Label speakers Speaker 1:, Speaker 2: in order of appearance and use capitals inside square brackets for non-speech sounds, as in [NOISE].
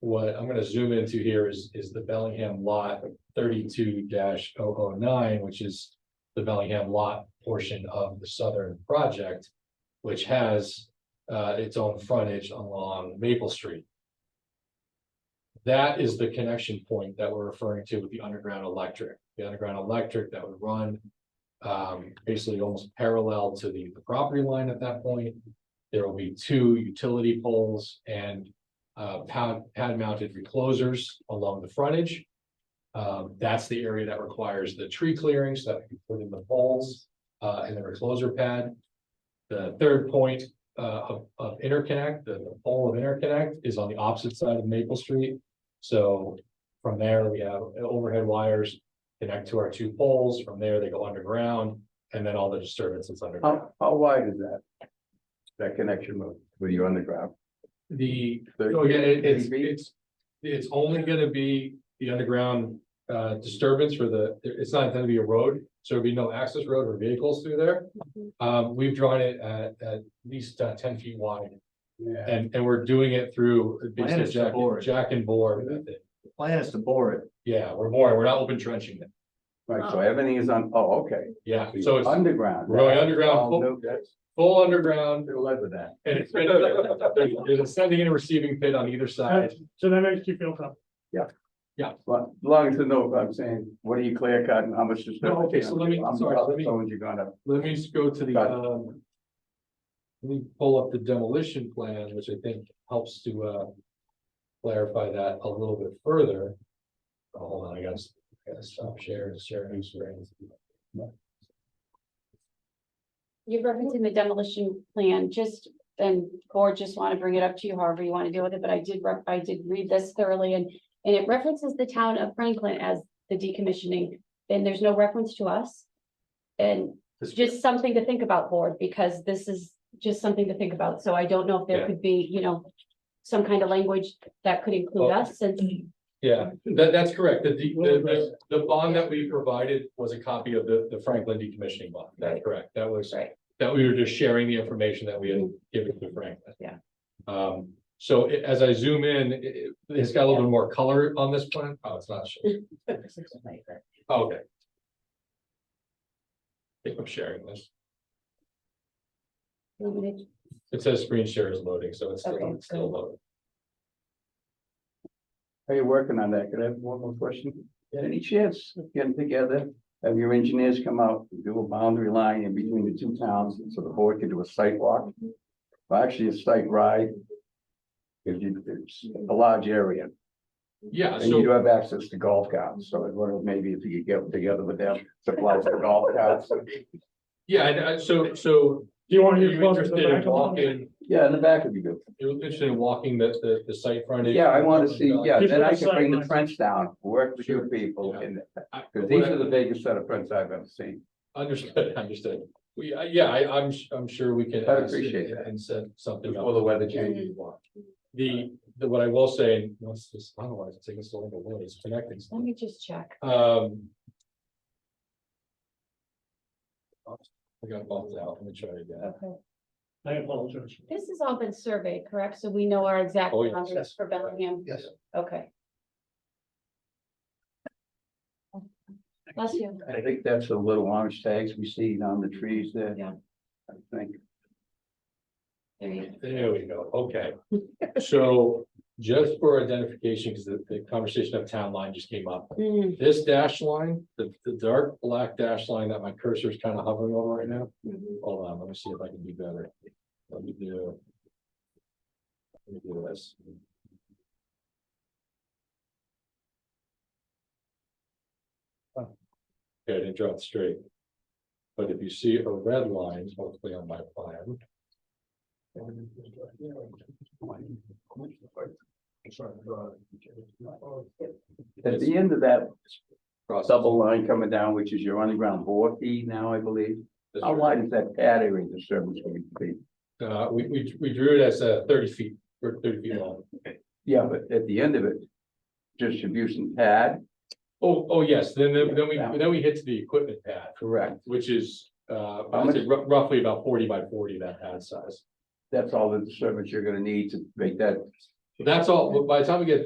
Speaker 1: What I'm gonna zoom into here is, is the Bellingham lot thirty-two 9 which is. The Bellingham lot portion of the southern project, which has, uh, its own frontage along Maple Street. That is the connection point that we're referring to with the underground electric, the underground electric that would run. Um, basically almost parallel to the, the property line at that point. There will be two utility poles and uh, pad, pad mounted reclosers along the frontage. Um, that's the area that requires the tree clearing so that we can put in the poles, uh, and the recloser pad. The third point, uh, of, of interconnect, the the pole of interconnect is on the opposite side of Maple Street. So from there, we have overhead wires connect to our two poles. From there, they go underground and then all the disturbances underground.
Speaker 2: How, how wide is that? That connection mode? Were you underground?
Speaker 1: The,
Speaker 2: Thirty-
Speaker 1: oh yeah, it- it's,
Speaker 2: 30 feet?
Speaker 1: it's, it's only gonna be the underground uh disturbance for the, it's not gonna be a road. So there'll be no access road or vehicles through there. Um, we've drawn it at at least uh, ten feet wide
Speaker 2: Yeah.
Speaker 1: and and we're doing it through
Speaker 3: Plan
Speaker 1: basically
Speaker 3: is to
Speaker 1: jack,
Speaker 3: bore it.
Speaker 1: jack and bore method.
Speaker 3: Plan is to bore it.
Speaker 1: Yeah, we're boring, we're not open trenching it.
Speaker 2: Right, so everything is on, oh, okay.
Speaker 1: Yeah, so it's
Speaker 2: Underground.
Speaker 1: We're going underground.
Speaker 2: Oh, no, that's-
Speaker 1: full underground
Speaker 2: They're led with that.
Speaker 1: and it's been, [LAUGHS] there's there's a sending and receiving pit on either side.
Speaker 4: So that makes you feel comfortable.
Speaker 2: But as long as you know, I'm saying, what are you clear cut and how much is?
Speaker 1: No, okay, so let me-
Speaker 2: I'm
Speaker 1: sorry, let me-
Speaker 2: So you're gonna,
Speaker 1: Let me just go to the,
Speaker 2: Got it.
Speaker 1: um. Let me pull up the demolition plan, which I think helps to, uh. Clarify that a little bit further. Oh, Hold on, I gotta, I gotta stop sharing, sharing screen.
Speaker 5: You're referencing the demolition plan, just, and, or just want to bring it up to you however you want to deal with it, but I did, rep- I did read this thoroughly and. And it references the town of Franklin as the decommissioning, and there's no reference to us. And just something to think about, board, because this is just something to think about, so I don't know if
Speaker 1: Yeah.
Speaker 5: there could be, you know. Some kind of language that could include
Speaker 1: Well-
Speaker 5: us and,
Speaker 1: Yeah, that, that's correct. The, de- the, the, the bond that we provided was a copy of the, the Franklin decommissioning bond. That's
Speaker 5: Right.
Speaker 1: correct. That was.
Speaker 5: Right. Mm-hmm.
Speaker 1: That we were just sharing the information that we had given to Franklin.
Speaker 5: Yeah.
Speaker 1: Um, so i- as I zoom in, it, it- it's got a little bit more color on this plan. Oh, it's not. showing. Oh, Okay. I think I'm sharing this. It says screen share is loading, so it's
Speaker 5: Okay,
Speaker 1: still, it's still
Speaker 5: good.
Speaker 1: loading.
Speaker 2: are you working on that? Could I have one more question? Any chance of getting together, have your engineers come out, and do a boundary line in between the two towns, so the board can do a site walk? Well, actually, a site ride. If you, it's a large area.
Speaker 1: Yeah,
Speaker 2: And you do
Speaker 1: so,
Speaker 2: have access to golf carts, so I wonder if maybe if you could get together with them, supply some golf carts.
Speaker 1: yeah, and, uh, so, so
Speaker 4: Do you want
Speaker 1: are
Speaker 4: to?
Speaker 1: you
Speaker 4: use both of the
Speaker 1: interested in
Speaker 4: back of them?
Speaker 1: walking,
Speaker 2: Yeah, in the back would be good.
Speaker 1: you're interested in walking the, the, the site frontage?
Speaker 2: Yeah, I wanna see, yeah,
Speaker 4: Keep
Speaker 2: then
Speaker 4: it
Speaker 2: I can bring the
Speaker 4: aside.
Speaker 2: fence down, work with
Speaker 1: Sure.
Speaker 2: your people
Speaker 1: Yeah.
Speaker 2: in, the-
Speaker 1: I-
Speaker 2: cause
Speaker 1: what
Speaker 2: these
Speaker 1: I-
Speaker 2: are the biggest set of prints I've ever seen.
Speaker 1: Understood, [LAUGHS] understood. We, uh, yeah, I, I'm, s- I'm sure we can.
Speaker 2: I'd appreciate
Speaker 1: and-
Speaker 2: that.
Speaker 1: And set something
Speaker 2: Before
Speaker 1: up.
Speaker 2: the weather changes.
Speaker 1: The, the, what I will say, and once this, otherwise it's taking so long to load, it's connecting.
Speaker 5: let me just check.
Speaker 1: Um. I got bumped out, let me try it again.
Speaker 5: Okay.
Speaker 4: I apologize.
Speaker 5: This has all been surveyed, correct? So we know our exact
Speaker 1: Oh, yes.
Speaker 5: boundaries for Bellingham?
Speaker 1: Yes.
Speaker 5: Okay. Bless you.
Speaker 2: I think that's the little orange tags we see on the trees there.
Speaker 5: Yeah.
Speaker 2: I think,
Speaker 5: There you
Speaker 1: There we go, okay. So just for identification, because the, the conversation of town line just came up.
Speaker 5: go. Mm,
Speaker 1: This dash line, the, the dark black dash line that my cursor is kind of hovering over right now.
Speaker 5: mhm.
Speaker 1: Hold on, let me see if I can do better. Let me do. Let me do this. Okay, I didn't draw it straight. But if you see a red line, hopefully on my plan.
Speaker 2: at the end of that double line coming down, which is your underground bore fee now, I believe. How wide is that pad area disturbance going to be?
Speaker 1: Uh, we, we, we drew it as a thirty feet, or thirty feet long.
Speaker 2: Yeah, but at the end of it, distribution pad,
Speaker 1: Oh, oh, yes, then, then then we,
Speaker 2: Yeah.
Speaker 1: then we hit to the equipment pad.
Speaker 2: correct.
Speaker 1: Which is, uh,
Speaker 2: How
Speaker 1: I'd say rou- roughly about forty by forty, that pad size.
Speaker 2: That's all the disturbance you're gonna need to make that
Speaker 1: That's all, by the time we get